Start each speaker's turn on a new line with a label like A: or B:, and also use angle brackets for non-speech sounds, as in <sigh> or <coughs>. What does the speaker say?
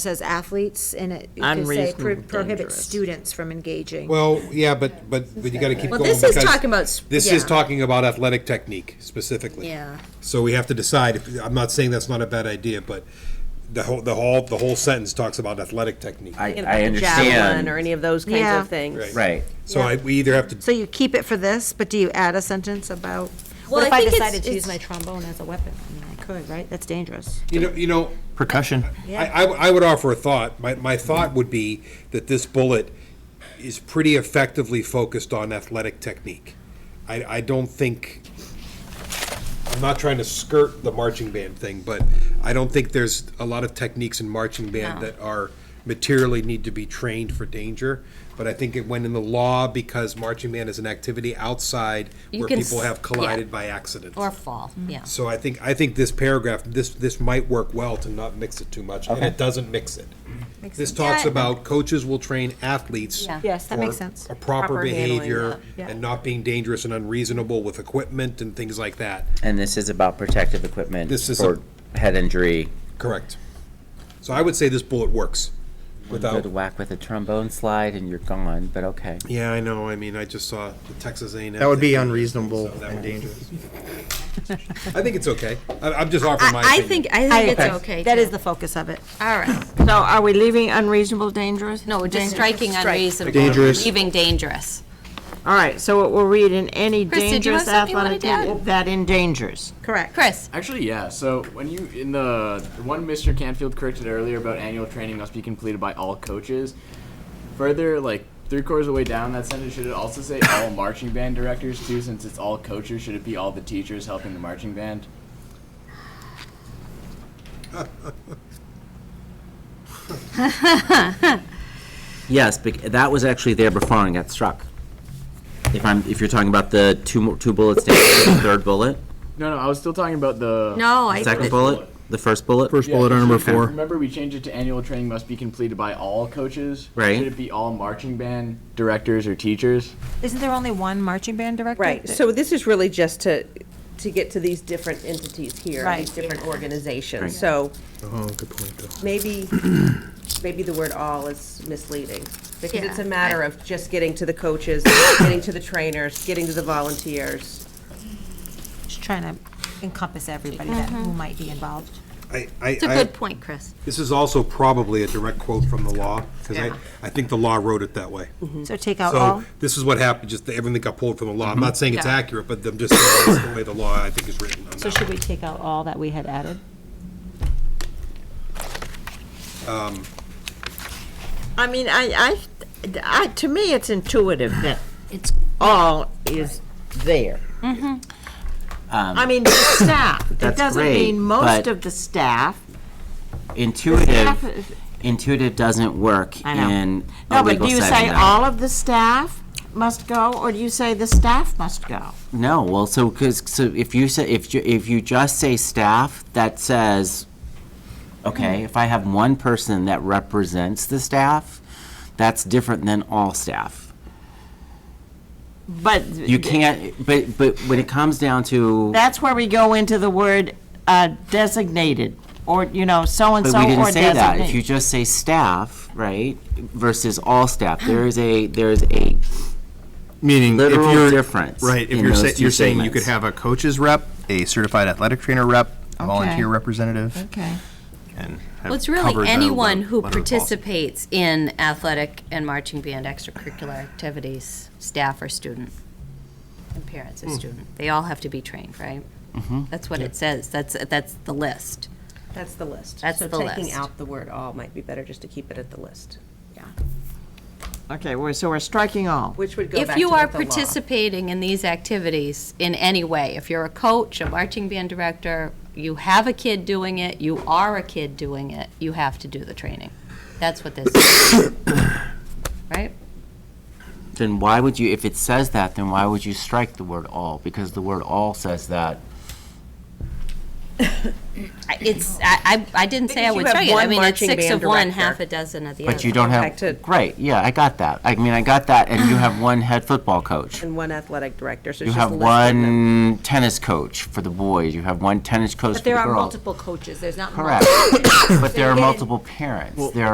A: says athletes, and it, you could say
B: Unreasonable,
A: pro- prohibits
B: dangerous.
A: students from engaging.
C: Well, yeah, but, but, but you gotta keep
A: Well,
C: going.
A: this is
C: because
A: talking about s-
C: This is
A: yeah.
C: talking about athletic technique specifically.
A: Yeah.
C: So we have to decide, if- I'm not saying that's not a bad idea, but the whole, the whole, the whole sentence talks about athletic technique.
D: I,
E: Thinking about
D: I
E: the javelin
D: understand.
E: Or any of those kinds
A: Yeah.
E: of things.
D: Right.
C: So I, we either have to,
A: So you keep it for this, but do you add a sentence about,
E: Well,
A: what if
E: I
A: I
E: think it's-
A: decided to use my
E: it's-
A: trombone as a weapon? I mean, I could, right? That's dangerous.
C: you know, you know,
F: Percussion.
C: I, I, I would offer a thought. My, my thought would be that this bullet is pretty effectively focused on athletic technique. I, I don't think, I'm not trying to skirt the marching band thing, but I don't think there's a lot of techniques in marching band that are materially need to be trained for danger. But I think it went in the law because marching band is an activity outside where
G: can
C: people
G: s-
C: have collided by accident.
G: Or fall, yeah.
C: So I think, I think this paragraph, this, this might work well to not mix it too much, and it doesn't mix it. This talks about coaches will train athletes.
G: Yeah.
A: Yes, that
C: for
A: makes sense.
C: A proper
E: Proper handling,
C: behavior
A: yeah.
C: and not being dangerous and unreasonable with equipment and things like that.
D: And this is about protective equipment
C: This is
D: for head injury.
C: Correct. So I would say this bullet works
D: Good
C: without,
D: whack with a trombone slide and you're gone, but okay.
C: yeah, I know, I mean, I just saw the Texas A and M.
F: That would be
C: thing.
F: unreasonable
C: So that
F: and
C: would-
F: dangerous.
C: I think it's okay. I, I'm just offering my
G: I, I
C: opinion.
G: think, I think it's okay.
A: That
G: too.
A: is the focus of it.
G: All right.
A: So are we leaving unreasonable, dangerous?
G: No, we're just striking unreasonable.
F: Dangerous.
G: Leaving dangerous.
B: All right, so what we're reading, any
G: Chris, did you have
B: dangerous
G: something you
B: athletic
G: wanted to
B: activity that endangers.
A: Correct.
G: Chris,
H: Actually, yeah. So when you in the the one Mr. Canfield corrected earlier about annual training must be completed by all coaches. Further, like three quarters of the way down that sentence, should it also say all marching band directors too? Since it's all coaches, should it be all the teachers helping the marching band?
D: Yes, bec- that was actually there before and got struck. If I'm, if you're talking about the two, mo- two bullets down, the
F: <coughs>
D: third bullet,
H: No, no. I was still talking about the
G: no, I,
D: second bullet, the first bullet.
F: First
H: Yeah,
F: bullet,
H: it
F: number
H: should-
F: four.
H: Remember, we changed it to annual training must be completed by all coaches.
D: Right.
H: Should it be all marching band directors or teachers?
A: Isn't there only one marching band director?
E: right, so this is really just to, to get to these different entities here,
A: Right.
E: these different
D: Right.
E: organizations. So
F: Oh, good point, Bill.
E: maybe, maybe the word all is misleading. Because it's a
G: Yeah.
E: matter of just getting to the coaches, <coughs> getting to the trainers, getting to the volunteers.
A: Just trying to encompass everybody that, who might be involved.
C: I, I,
G: It's a
C: I,
G: good point, Chris.
C: this is also probably a direct quote from the law, because I,
G: Yeah. Mm-hmm. Uh-huh.
C: I think the law wrote it that way.
A: So take out all,
C: So this is what happened, just that everything got pulled from the law. I'm not saying it's
G: Mm-hmm. Yeah.
C: accurate, but I'm just saying that's the way the law, I think, is written on
A: so
C: that.
A: should we take out all that we had added?
B: I mean, I, I, I, to me, it's intuitive that it's, all is there. I mean, the staff, <coughs> it
D: That's
B: doesn't
D: great,
B: mean most
D: but-
B: of the staff. Staff
D: Intuitive,
B: is-
D: intuitive doesn't work
B: I know.
D: in a
B: No, but
D: legal
B: do you say
D: setting. though.
B: all of the staff must go, or do you say the staff must go?
D: No, well, so, because, so if you say, if you, if you just say staff, that says, okay, if I have one person that represents the staff, that's different than all staff.
B: But
D: You can't, but, but when it comes down to,
B: that's where we go into the word uh, designated, or, you know,
D: but
B: so-and-so
D: we
B: or
D: didn't say that. If you
B: designate.
D: just say staff, right, versus all staff, there is a, there is a
F: Meaning, if
D: Literal
F: you're.
D: difference
F: Right, if
D: in
F: you're,
D: those
F: say-
D: two
F: you're saying you could
D: statements.
F: have a coach's rep, a certified athletic trainer rep, a
B: Okay.
F: volunteer representative,
B: Okay.
F: and have
G: Well, it's
F: covered
G: really
F: the
G: anyone
F: le-
G: who
F: letter of the policy.
G: participates in athletic and marching band extracurricular activities, staff or student, and parents
F: Hmm.
G: and student. They all have to be trained, right?
F: Mm-hmm.
G: That's what it says. That's, that's the list.
E: That's the list.
G: That's the
E: So taking
G: list.
E: out the word all might be better just to keep it at the list,
B: Okay, we're- so we're striking all.
E: which would go back
G: If
E: to
G: you are
E: what the law-
G: participating in these activities in any way, if you're a coach, a marching band director, you have a kid doing it, you are a kid doing it, you have to do the training. That's what this
E: <coughs>
G: is. Right?
D: then why would you, if it says that, then why would you strike the word all? Because the word all says that.
G: I- It's, I, I I didn't say I
E: Because
G: would
E: you have
G: tell you. I
E: one
G: mean, it's
E: marching
G: six
E: band
G: of one,
E: director.
G: half a dozen of the other.
D: But you don't
E: Back to-
D: have, great, yeah, I got that. I mean, I got that, and you have one head football coach.
E: and one athletic director, so
D: You
E: it's just
D: have
E: less than that.
D: one tennis coach for the boys, you have one tennis coach for
A: But
D: the
A: there are
D: girls.
A: multiple coaches, there's not multiple.
D: Correct. But there are
A: They didn't-
D: multiple parents, there are